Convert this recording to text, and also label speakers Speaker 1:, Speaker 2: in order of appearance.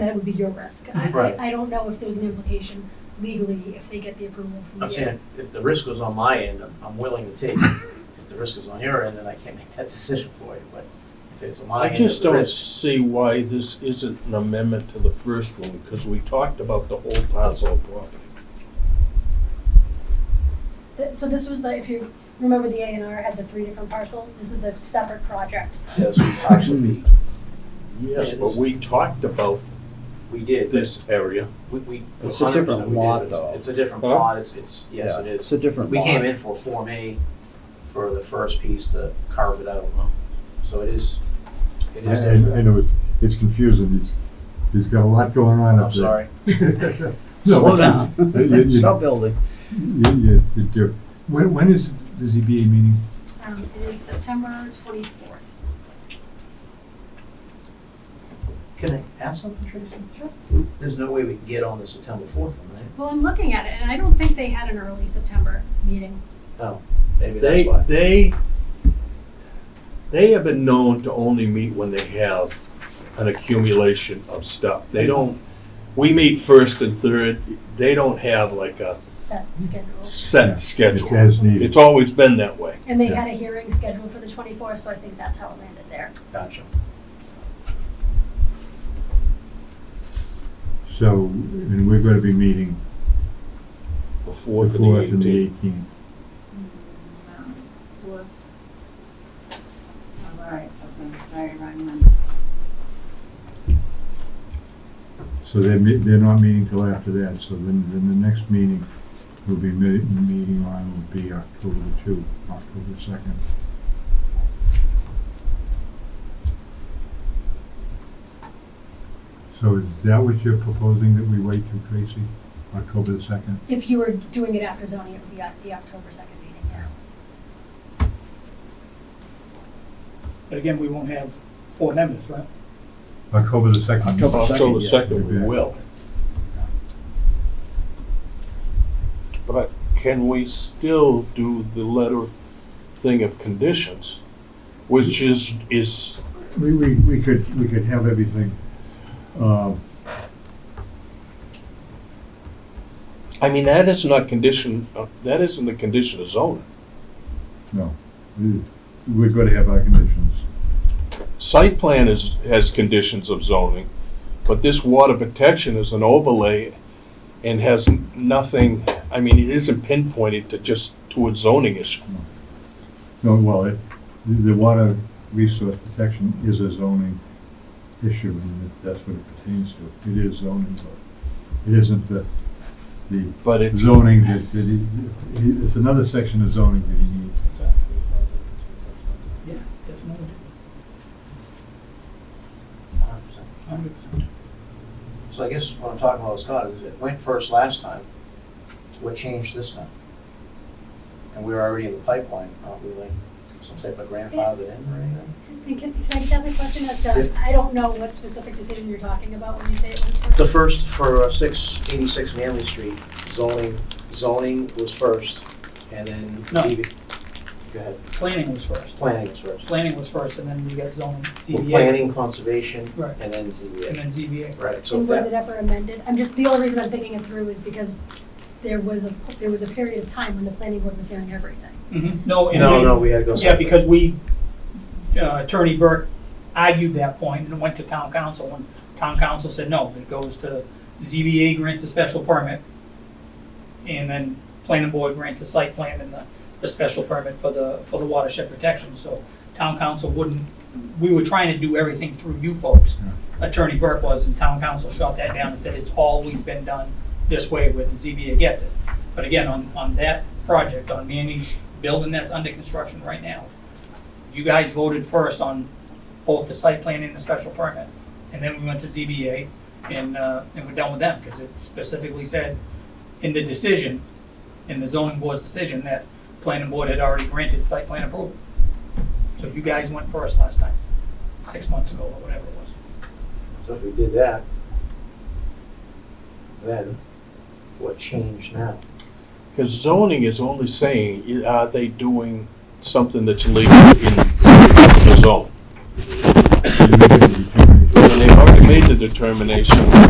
Speaker 1: that would be your risk. I-
Speaker 2: Right.
Speaker 1: I, I don't know if there's an implication legally if they get the approval from you.
Speaker 2: I'm saying, if- if the risk was on my end, I'm, I'm willing to take it. If the risk is on your end, then I can't make that decision for you, but if it's on my
Speaker 3: I
Speaker 2: end.
Speaker 3: just
Speaker 2: the
Speaker 3: don't
Speaker 2: risk-
Speaker 3: see why this isn't an amendment to the first one, because we talked about the whole parcel property.
Speaker 1: Th- So this was the, if you remember, the A and R had the three different parcels, this is a separate project.
Speaker 2: Yes, we partially,
Speaker 4: Hmm.
Speaker 3: Yes,
Speaker 2: Yeah,
Speaker 3: but
Speaker 2: this-
Speaker 3: we talked about
Speaker 2: we did.
Speaker 3: this area.
Speaker 2: We, we.
Speaker 4: It's a different
Speaker 2: 100% we did.
Speaker 4: lot,
Speaker 2: It's-
Speaker 4: though.
Speaker 2: It's a different
Speaker 3: Huh?
Speaker 2: plot, it's, it's, yes,
Speaker 4: Yeah,
Speaker 2: it is.
Speaker 4: It's a different
Speaker 2: We
Speaker 4: lot.
Speaker 2: came in for Form A for the first piece to carve it out, so it is, it
Speaker 5: I,
Speaker 2: is
Speaker 5: I I
Speaker 2: different.
Speaker 5: know it's, it's confusing. He's, he's got a lot going on
Speaker 2: I'm
Speaker 5: up there.
Speaker 2: sorry.
Speaker 5: No,
Speaker 4: Slow
Speaker 5: but
Speaker 4: down.
Speaker 5: You, you, you,
Speaker 4: Stop building.
Speaker 5: you, you- you do. When, when is the ZBA meeting?
Speaker 1: Um, it is September twenty-fourth.
Speaker 2: Can I ask something, Tracy?
Speaker 1: Sure.
Speaker 2: There's no way we can get on the September fourth one, right?
Speaker 1: Well, I'm looking at it, and I don't think they had an early September meeting.
Speaker 2: No, Oh, maybe
Speaker 3: They,
Speaker 2: that's why.
Speaker 3: they, they have been known to only meet when they have an accumulation of stuff.
Speaker 2: Mm-hmm.
Speaker 3: They don't, we meet first and third, they don't have like a
Speaker 1: set schedule.
Speaker 3: set
Speaker 5: It's
Speaker 3: schedule.
Speaker 5: as needed.
Speaker 3: It's always been that way.
Speaker 1: And they
Speaker 5: Yeah.
Speaker 1: had a hearing scheduled for the twenty-fourth, so I think that's how it landed there.
Speaker 2: Gotcha.
Speaker 5: So, and we're gonna be meeting
Speaker 3: The
Speaker 5: the
Speaker 3: fourth and the
Speaker 5: fourth and the
Speaker 3: eighteenth.
Speaker 5: eighteenth.
Speaker 6: um, All right, okay, sorry, wrong one.
Speaker 5: So they're, me- they're not meeting till after that, so then, then the next meeting will be me- meeting on will be October two, October second. So is that what you're proposing that we wait till Tracy, October the second?
Speaker 1: If you were doing it after zoning, it was the, the October second meeting, yes.
Speaker 7: But again, we won't have four members, right?
Speaker 5: October the second.
Speaker 4: October
Speaker 3: October
Speaker 4: Second,
Speaker 3: second, we will. But can we still do the letter thing of conditions, which is, is,
Speaker 5: We, we, we could, we could have everything, um,
Speaker 3: I mean, that is not condition, uh, that isn't a condition of zoning.
Speaker 5: no, we- we're gonna have our conditions.
Speaker 3: Site plan is, has conditions of zoning, but this water protection is an overlay and has nothing, I mean, it isn't pinpointed to just, to a zoning issue.
Speaker 5: No, well, it, the the water resource protection is a zoning issue, and that- that's what it pertains to. It is zoning, but it isn't the, the
Speaker 3: But it's,
Speaker 5: zoning that, that he, he- it's another section of zoning that he needs.
Speaker 7: Yeah, definitely.
Speaker 2: Hundred percent. So I guess what I'm talking about, Scott, is it went first last time, what changed this time? And we were already in the pipeline, probably, like, some type of grandfather in or anything?
Speaker 1: And can, can I just ask a question as to, I don't know what specific decision you're talking about when you say it went first?
Speaker 2: The first for six eighty-six Manley Street, zoning, zoning was first, and then.
Speaker 7: No.
Speaker 2: DB Go ahead,
Speaker 7: Planning was first.
Speaker 2: planning was first.
Speaker 7: Planning was first, and then you got zoning,
Speaker 2: Well,
Speaker 7: CBA,
Speaker 2: Planning, conservation,
Speaker 7: Right.
Speaker 2: and then
Speaker 7: and
Speaker 2: ZBA,
Speaker 7: then ZBA.
Speaker 2: right, so
Speaker 1: And was
Speaker 2: that,
Speaker 1: it ever amended? I'm just, the only reason I'm thinking it through is because there was a, there was a period of time when the planning board was hearing everything.
Speaker 7: Mhm. No, and
Speaker 2: no,
Speaker 7: we-
Speaker 2: no, we had to go.
Speaker 7: Yeah,
Speaker 2: separate.
Speaker 7: because we, uh, Attorney Burke argued that point and it went to town council, and town council said, no, it goes to ZBA grants a special permit, and then planning board grants a site plan and the, the special permit for the, for the watershed protection, so town council wouldn't, we were trying to do everything through you folks. Attorney Burke was, and town council shot that down and said, it's always been done this way when the ZBA gets it. But again, on, on that project, on Manny's building that's under construction right now, you guys voted first on both the site plan and the special permit. And then we went to ZBA and, uh, and we're done with them, because it specifically said in the decision, in the zoning board's decision, that planning board had already granted site plan approval. So you guys went first last time, six months ago or whatever it was.
Speaker 2: So if we did that, then what changed now?
Speaker 3: because zoning is only saying, i- are they doing something that's legal in the zone?
Speaker 5: You make a determination.
Speaker 3: And they've already made the determination